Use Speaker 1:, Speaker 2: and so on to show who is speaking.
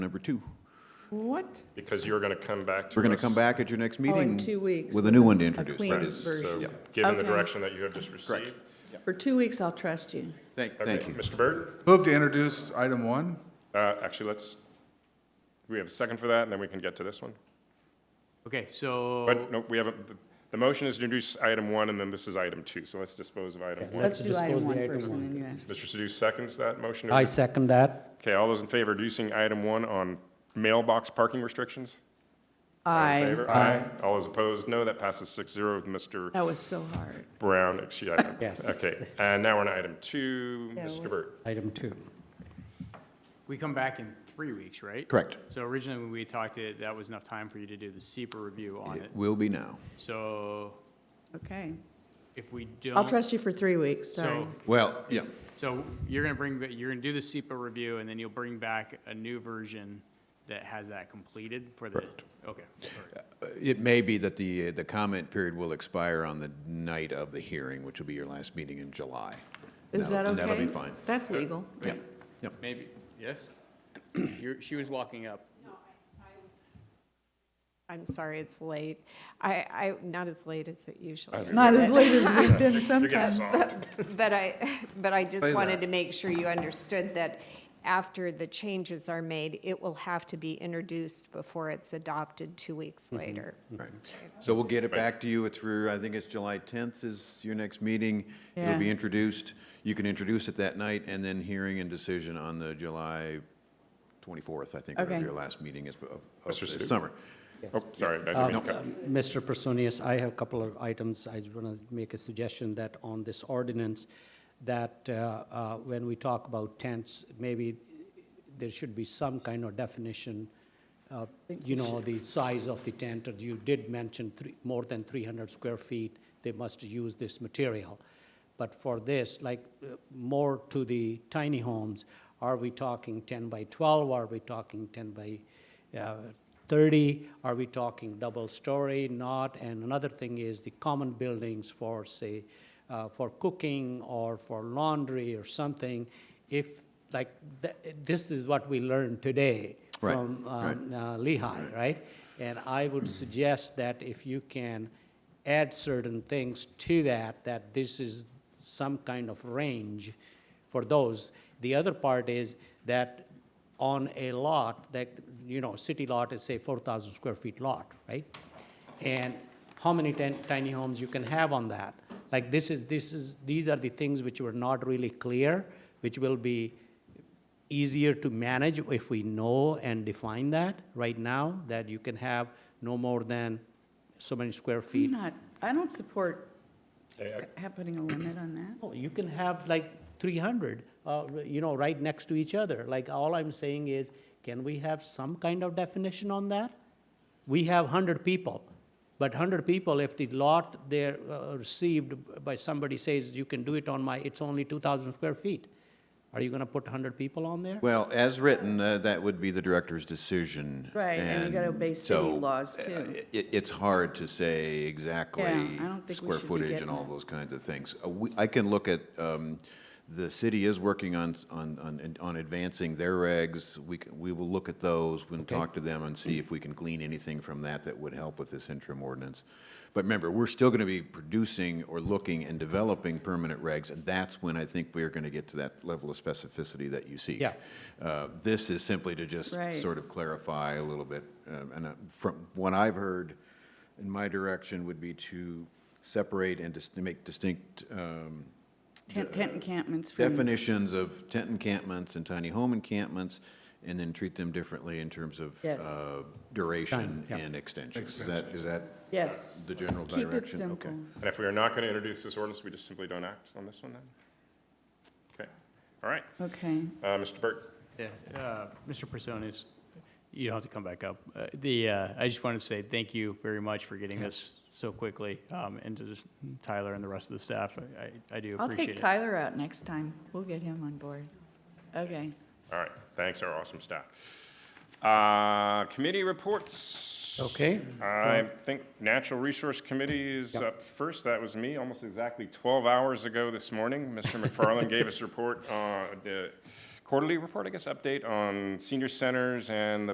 Speaker 1: number two.
Speaker 2: What?
Speaker 3: Because you're going to come back to us.
Speaker 1: We're going to come back at your next meeting.
Speaker 2: Oh, two weeks
Speaker 1: With a new one to
Speaker 2: with a
Speaker 1: introduce.
Speaker 2: clean
Speaker 1: That
Speaker 3: Right,
Speaker 1: is-
Speaker 2: version.
Speaker 3: so,
Speaker 1: yeah.
Speaker 3: given the
Speaker 2: Okay.
Speaker 3: direction that you have just received.
Speaker 2: For two weeks, I'll trust you.
Speaker 1: Thank,
Speaker 3: Okay,
Speaker 1: thank you.
Speaker 3: Mr. Byrd,
Speaker 4: Move to introduce item one.
Speaker 3: uh, actually, let's, we have a second for that, and then we can get to this one.
Speaker 5: Okay, so.
Speaker 2: Oh.
Speaker 3: But, no, we haven't, the- the motion is to introduce item one, and then this is item two, so let's dispose of item one.
Speaker 2: Let's do item one first, and then you ask.
Speaker 3: Mr. Sadoo seconds that motion. to
Speaker 6: I
Speaker 3: introduce-
Speaker 6: second that.
Speaker 3: Okay, all those in favor of reducing item one on mailbox parking restrictions? All in
Speaker 2: Aye.
Speaker 3: favor? Aye. All those opposed, no, that passes six zero with Mr.
Speaker 2: That was so hard.
Speaker 3: Brown, excuse, I-
Speaker 6: Yes.
Speaker 3: okay. And now we're on item two,
Speaker 2: Yeah,
Speaker 3: Mr.
Speaker 2: we-
Speaker 3: Byrd.
Speaker 6: Item two.
Speaker 5: We come back in three weeks, right?
Speaker 1: Correct.
Speaker 5: So originally, when we talked, it- that was enough time for you to do the SEPA review on it.
Speaker 1: It will be now.
Speaker 5: So
Speaker 2: Okay.
Speaker 5: if we don't.
Speaker 2: I'll trust you for three weeks, sorry.
Speaker 5: So,
Speaker 1: Well, yeah,
Speaker 5: so you're going to bring, ba- you're going to do the SEPA review, and then you'll bring back a new version that has that completed for the. Okay. all right.
Speaker 1: it may be that the, uh, the comment period will expire on the night of the hearing, which will be your last meeting in July.
Speaker 2: Is
Speaker 1: That'll-
Speaker 2: that okay?
Speaker 1: and That'll be fine.
Speaker 2: That's legal.
Speaker 1: Yeah, yeah.
Speaker 5: Maybe, yes? You're, she was walking up.
Speaker 7: I'm sorry, it's late. I, I, not as late as it usually is.
Speaker 2: Not as late as we've been
Speaker 3: You're getting
Speaker 2: sometimes.
Speaker 3: soft.
Speaker 7: But I, but I
Speaker 1: Say
Speaker 7: just wanted
Speaker 1: that.
Speaker 7: to make sure you understood that after the changes are made, it will have to be introduced before it's adopted two weeks later.
Speaker 1: Right. So we'll get it back to you. It's through, I think it's July 10th is your next meeting. It'll be
Speaker 2: Yeah.
Speaker 1: introduced. You can introduce it that night and then hearing and decision on the July 24th, I think, whatever
Speaker 2: Okay.
Speaker 1: your last meeting is of- of
Speaker 3: Mr.
Speaker 1: the
Speaker 3: Stu.
Speaker 1: summer. Um,
Speaker 3: Oh, sorry, I didn't
Speaker 6: Um,
Speaker 3: mean to cut.
Speaker 6: Mr. Personius, I have a couple of items. I want to make a suggestion that on this ordinance, that uh, uh, when we talk about tents, maybe there should be some kind of definition, uh, you know, the size of the tent. or You did mention three- more than 300 square feet, they must use this material. But for this, like, uh, more to the tiny homes, are we talking 10 by 12? Are we talking 10 by uh, 30? Are we talking double-story, not? And another thing is the common buildings for, say, uh, for cooking or for laundry or something. If, like, th- this is what we learned today
Speaker 1: Right,
Speaker 6: from um, uh, Lehigh, right? And I would suggest that if you can add certain things to that, that this is some kind of range for those. The other part is that on a lot, that, you know, city lot is say 4,000 square feet lot, right? And how many tin- tiny homes you can have on that? Like, this is, this is, these are the things which were not really clear, which will be easier to manage if we know and define that right now, that you can have no more than so many square
Speaker 2: I'm
Speaker 6: feet.
Speaker 2: not, I don't support
Speaker 3: Hey, I-
Speaker 2: putting a limit on that.
Speaker 6: Oh, You can have like 300, uh, you know, right next to each other. Like, all I'm saying is, can we have some kind of definition on that? We have 100 people, but 100 people, if the lot they're uh, received by somebody says, you can do it on my, it's only 2,000 square feet, are you going to put 100 people on there?
Speaker 1: Well, as written, uh, that would be the director's decision.
Speaker 2: Right, and we gotta obey city
Speaker 1: so,
Speaker 2: laws,
Speaker 1: uh,
Speaker 2: too.
Speaker 1: It, it's hard to say exactly
Speaker 2: Yeah, I don't think we
Speaker 1: square
Speaker 2: should be
Speaker 1: footage
Speaker 2: getting
Speaker 1: and all
Speaker 2: it.
Speaker 1: those kinds of things. Uh, we- I can look at, um, the city is working on, s- on, on, on advancing their regs. We, c- we will look at those, we'll talk to them and see if we can glean anything from that that would help with this interim ordinance. But remember, we're still gonna be producing or looking and developing permanent regs, and that's when I think we're gonna get to that level of specificity that you seek.
Speaker 6: Yeah.
Speaker 1: Uh, This is simply to just
Speaker 2: Right.
Speaker 1: sort of clarify a little bit. um, And uh, from what I've heard, in my direction would be to separate and dis- to make distinct um,
Speaker 2: Tent tent encampments from,
Speaker 1: definitions of tent encampments and tiny home encampments, and then treat them differently in terms of
Speaker 2: Yes.
Speaker 1: uh, duration
Speaker 6: Time, yeah.
Speaker 1: and extension. Is that, is that
Speaker 2: yes.
Speaker 1: the general direction?
Speaker 2: Keep it
Speaker 1: Okay.
Speaker 2: simple.
Speaker 3: And if we are not going to introduce this ordinance, we just simply don't act on this one then? Okay, all right.
Speaker 2: Okay.
Speaker 3: Uh, Mr. Byrd?
Speaker 5: Yeah, uh, Mr. Personas, you don't have to come back up. Uh, The, uh, I just wanted to say thank you very much for getting this so quickly, um, and to just Tyler and the rest of the staff. I- I I do
Speaker 2: I'll take
Speaker 5: appreciate it.
Speaker 2: Tyler out next time. We'll get him on board. Okay.
Speaker 3: All right, thanks, our awesome staff. Uh, Committee reports.
Speaker 6: Okay.
Speaker 3: I think Natural Resource Committee is
Speaker 6: Yep.
Speaker 3: up first. That was me almost exactly 12 hours ago this morning. Mr. McFarland gave us a report, uh, the quarterly report, I guess, update on senior centers and the